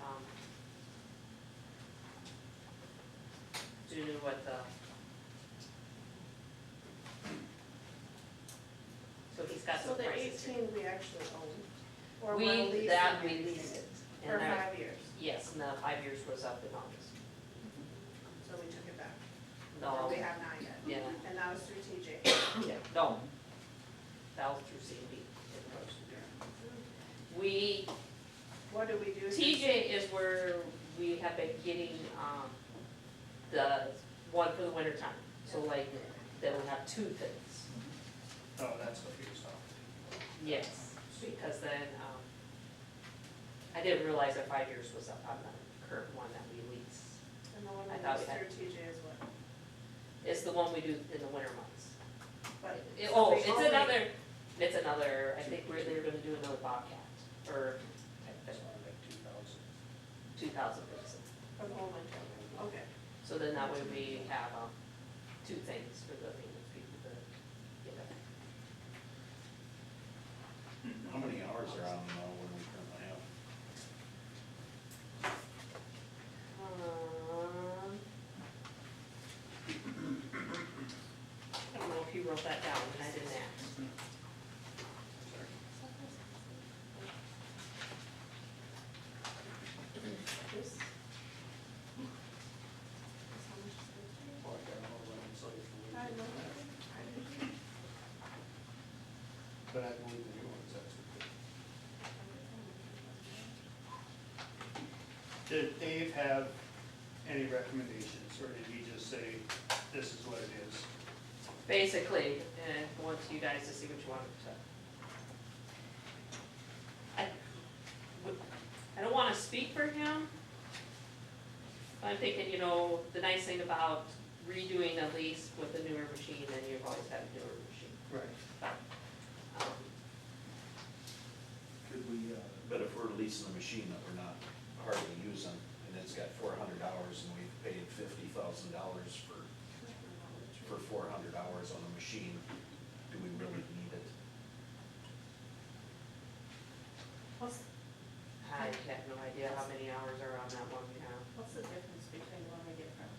um, what, uh. So he's got So the the prices here. eighteen we actually own, or We- we're leasing that we and lease leasing it and for that- five years, Yes, and the five years was up in August. so we took it back. Or No, We have not yet, yeah, and that was through TJ. yeah, no. That was through C and B. We, What do we do? TJ is where we have been getting, um, the one for the winter time. So like, then we have two things. No, Oh, that's what he was talking Yes, because then, um, I didn't realize that five years was up on the current one that we lease. And the one I we thought leased we had- through TJ is what, It's the one we do in the winter months. but. It- Oh, they it's only- another, it's another, I think we're, they're gonna do another Bobcat, or about, something like two thousand. two thousand person. For the whole winter, okay. So then that way we have, um, two things for the maintenance people to get up. How many hours are on now when we currently have? Um, I don't know if you wrote that down, and I didn't ask. This. This how much is it? Like, I don't know what it's like for I winter. don't know. I didn't- But I believe the new ones, that's what they. Did Dave have any recommendations, or did he just say, this is what it is? basically, and I want you guys to see what you want to. I, would- I don't wanna speak for him. but I'm thinking, you know, the nice thing about redoing a lease with a newer machine, then you've always had a newer machine. Right. Um, Could we, uh, but if we're leasing a machine that we're not hardly using, and it's got four hundred hours, and we've paid fifty thousand dollars for, for four hundred hours on a machine, do we really need it? What's, I have no idea how many hours are on that one now. What's the difference between one we get from,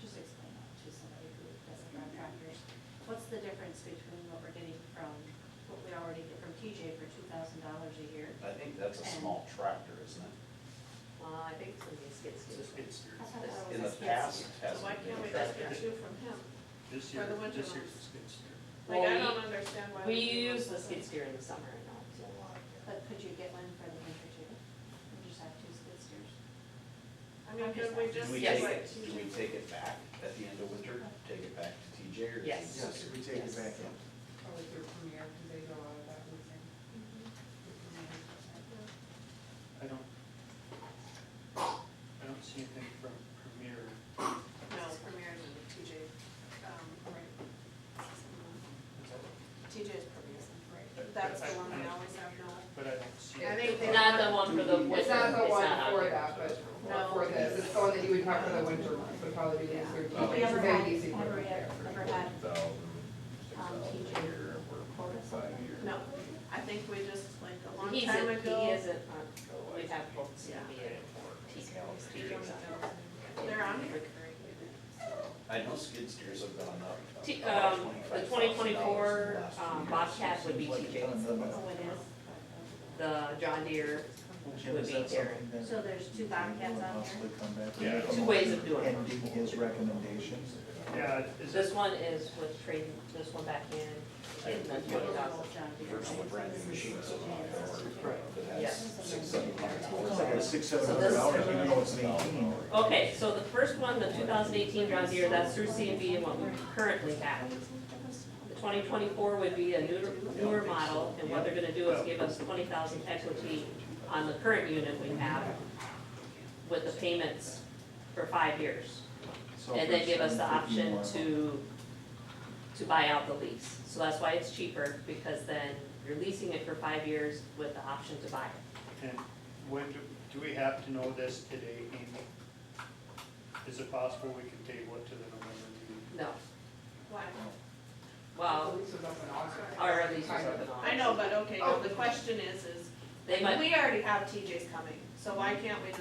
just explain that to somebody who doesn't run tractors. What's the difference between what we're getting from, what we already get from TJ for two thousand dollars a year? I think that's a small tractor, isn't it? Well, I think some of these gets It's a to, skid steer. I thought that was In the a skid past, steer. it so why can't hasn't been we a just tractor. get two from him? This For year, the winter this year's months. a skid steer. Like, I Well, don't understand why. we do use the this. skid steer in the summer and all. But could you get one for the winter too? And just have two skid steers? I mean, could we just Do we do take like it, do we TJ? take it back at the end of winter, take it back to TJ, or? is it Yes. Yes, just- we take it back in. Probably through Premier, because they go out that weekend. I don't, I don't see anything from Premier. No, Premier and TJ, um, TJ is Premier, right? That's the one we always have, no. But I don't see. I think they- Not the one for the winter, It's not the one out for there. that, but No. for this, it's the one that you would talk for the winter months, would probably be Yeah. easier. to- Have we ever had, Very easy for ever, them. ever had um, TJ quota something? No, I think we just, like, a long He's time a- uh, ago. He isn't, on- we have both Yeah. CB and TCALs, They're on here. I know skid steers have gone up. uh, T- about um, the $25,000 twenty in the twenty-four, last few um, years. Bobcat would be TJ, Oh, it is? the John Deere would be Darren. So there's two Bobcats on here? here? Two ways of doing it. And give his recommendations. Yeah, is it, This one is with trading, this one back in, in the twenty thousand. John Deere. Versus a brand new machine that's on our, that Yes. has six, seven hundred hours. It's like a six, seven So hundred this- dollars, even though it's an eighteen. Okay, so the first one, the two thousand eighteen John Deere, that's through C and B and what we currently have. The twenty twenty-four would be a newer, newer model, and what they're gonna do is give us twenty thousand equity on the current unit we have with the payments for five years. So And then give us the for seven option fifty more. to, to buy out the lease. So that's why it's cheaper, because then you're leasing it for five years with the option to buy it. and when, do do we have to know this today, Amy? Is it possible we can table it to the November meeting? No, Why? The well, lease is up in August. our lease is up and on. I know, but okay, no, the question is, is They might we already have TJ's coming, so why can't we